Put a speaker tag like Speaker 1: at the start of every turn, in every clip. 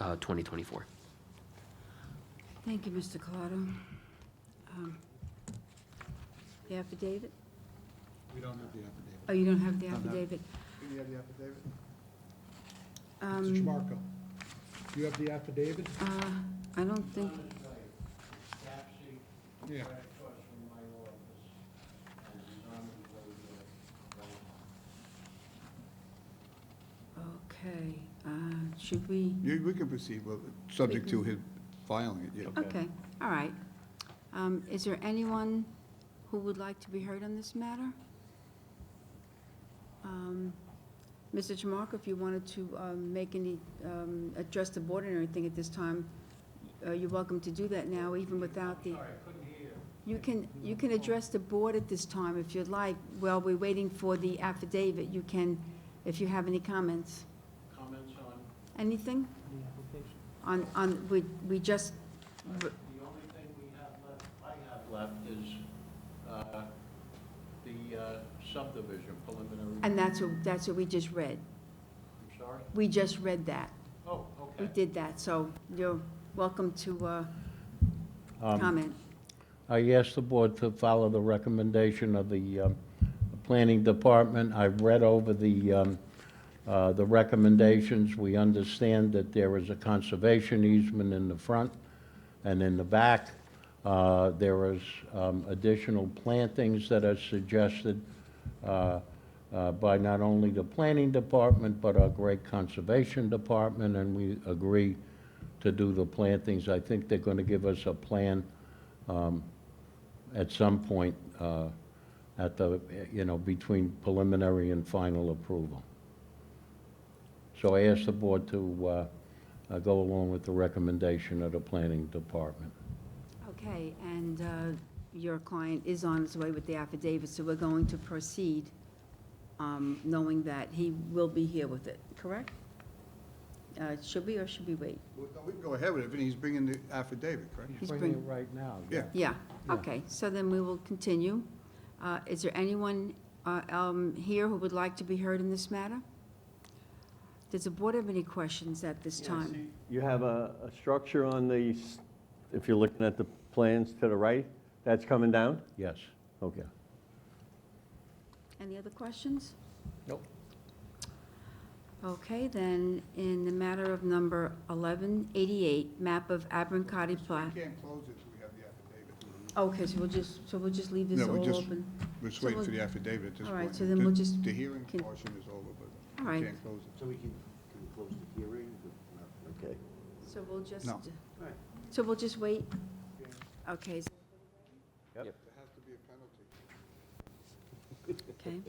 Speaker 1: uh, 2024.
Speaker 2: Thank you, Mr. Collado. Um, The affidavit?
Speaker 3: We don't have the affidavit.
Speaker 2: Oh, you don't have the
Speaker 3: No, no.
Speaker 2: affidavit?
Speaker 3: Do you have the affidavit?
Speaker 2: Um,
Speaker 3: Mr. Marco, you have the affidavit?
Speaker 2: uh, I don't think,
Speaker 3: Yeah.
Speaker 2: okay, uh, should we?
Speaker 4: You- We can proceed with it, subject to his filing it, yeah.
Speaker 2: Okay, all right. Um, Is there anyone who would like to be heard on this matter? Um, Mr. Tramarko, if you wanted to um, make any, um, address the board or anything at this time, uh, you're welcome to do that now, even without the... You can, you can address the board at this time if you'd like. While we're waiting for the affidavit, you can, if you have any comments.
Speaker 5: Comments on,
Speaker 2: Anything?
Speaker 6: the application.
Speaker 2: On, on, we we just,
Speaker 5: the only thing we have left, I have left is uh, the uh, subdivision preliminary.
Speaker 2: and that's what, that's what we just read.
Speaker 5: I'm sorry?
Speaker 2: We just read that.
Speaker 5: Oh,
Speaker 2: We
Speaker 5: okay.
Speaker 2: did that, so you're welcome to uh,
Speaker 5: Um,
Speaker 2: comment.
Speaker 5: I asked the board to follow the recommendation of the um, Planning Department. I've read over the, um, uh, the recommendations. We understand that there is a conservation easement in the front and in the back. Uh, There is um, additional plantings that are suggested uh, uh, by not only the Planning Department, but our great Conservation Department, and we agree to do the plantings. I think they're going to give us a plan um, at some point uh, at the, you know, between preliminary and final approval. So I asked the board to uh, uh, go along with the recommendation of the planning department.
Speaker 2: Okay, and uh, your client is on his way with the affidavit, so we're going to proceed, um, knowing that he will be here with it, correct? Uh, Should we or should we wait?
Speaker 4: We we can go ahead with it, and he's bringing the affidavit, correct?
Speaker 2: He's bringing it
Speaker 5: right now.
Speaker 4: yeah.
Speaker 2: Yeah,
Speaker 5: Yeah.
Speaker 2: okay, so then we will continue. Uh, Is there anyone uh, um, here who would like to be heard in this matter? Does the board have any questions at this time?
Speaker 7: You have a, a structure on the, s- if you're looking at the plans to the right, that's coming down?
Speaker 5: Yes.
Speaker 7: Okay.
Speaker 2: Any other questions?
Speaker 5: Nope.
Speaker 2: Okay, then, in the matter of number 1188, map of Abernacotti Plat.
Speaker 4: We can't close it till we have the affidavit.
Speaker 2: Okay, so we'll just, so we'll just leave this
Speaker 4: No, we
Speaker 2: all
Speaker 4: just-
Speaker 2: open?
Speaker 4: We're just
Speaker 2: So
Speaker 4: waiting for
Speaker 2: we'll-
Speaker 4: the affidavit at this
Speaker 2: All right,
Speaker 4: point.
Speaker 2: so then we'll
Speaker 4: The-
Speaker 2: just
Speaker 4: The hearing
Speaker 2: con-
Speaker 4: portion is over, but
Speaker 2: All
Speaker 4: we
Speaker 2: right.
Speaker 4: can't close it.
Speaker 6: So we can, can close the hearing? but- Okay.
Speaker 2: So we'll just,
Speaker 4: No.
Speaker 2: so we'll just wait? Okay, so-
Speaker 4: There has to be a penalty.
Speaker 2: okay.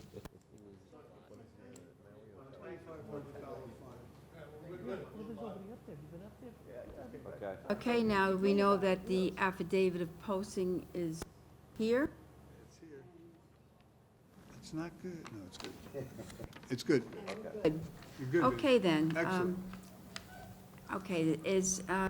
Speaker 2: Okay, now we know that the affidavit of posting is here.
Speaker 4: It's here. It's not good. No, it's good. It's good.
Speaker 2: Good.
Speaker 4: You're good.
Speaker 2: Okay, then.
Speaker 4: Excellent.
Speaker 2: um, Okay, is, uh...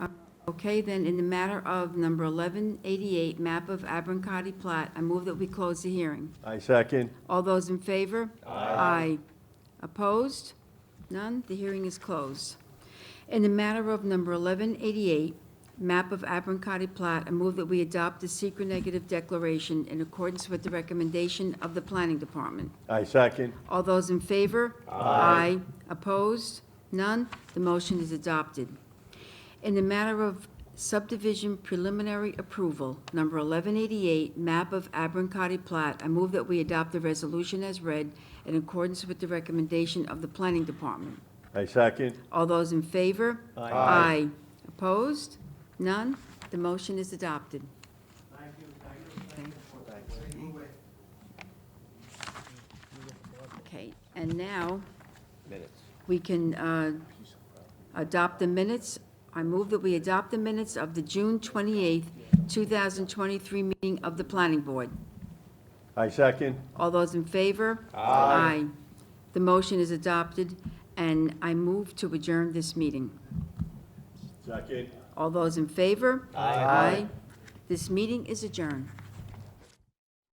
Speaker 2: Uh, Okay, then, in the matter of number 1188, map of Abernacotti Plat, I move that we close the hearing.
Speaker 7: I second.
Speaker 2: All those in favor? Aye. Opposed? None? The hearing is closed. In the matter of number 1188, map of Abernacotti Plat, I move that we adopt the secret negative declaration in accordance with the recommendation of the Planning Department.
Speaker 7: I second.
Speaker 2: All those in favor? Aye. Opposed? None? The motion is adopted. In the matter of subdivision preliminary approval, number 1188, map of Abernacotti Plat, I move that we adopt the resolution as read in accordance with the recommendation of the Planning Department.
Speaker 7: I second.
Speaker 2: All those in favor? Aye. Opposed? None? The motion is adopted. Thank you. Okay, and now,
Speaker 1: Minutes.
Speaker 2: we can uh, adopt the minutes. I move that we adopt the minutes of the June 28th, 2023 meeting of the Planning Board.
Speaker 7: I second.
Speaker 2: All those in favor? Aye. The motion is adopted, and I move to adjourn this meeting.
Speaker 7: Second.
Speaker 2: All those in favor? Aye. This meeting is adjourned.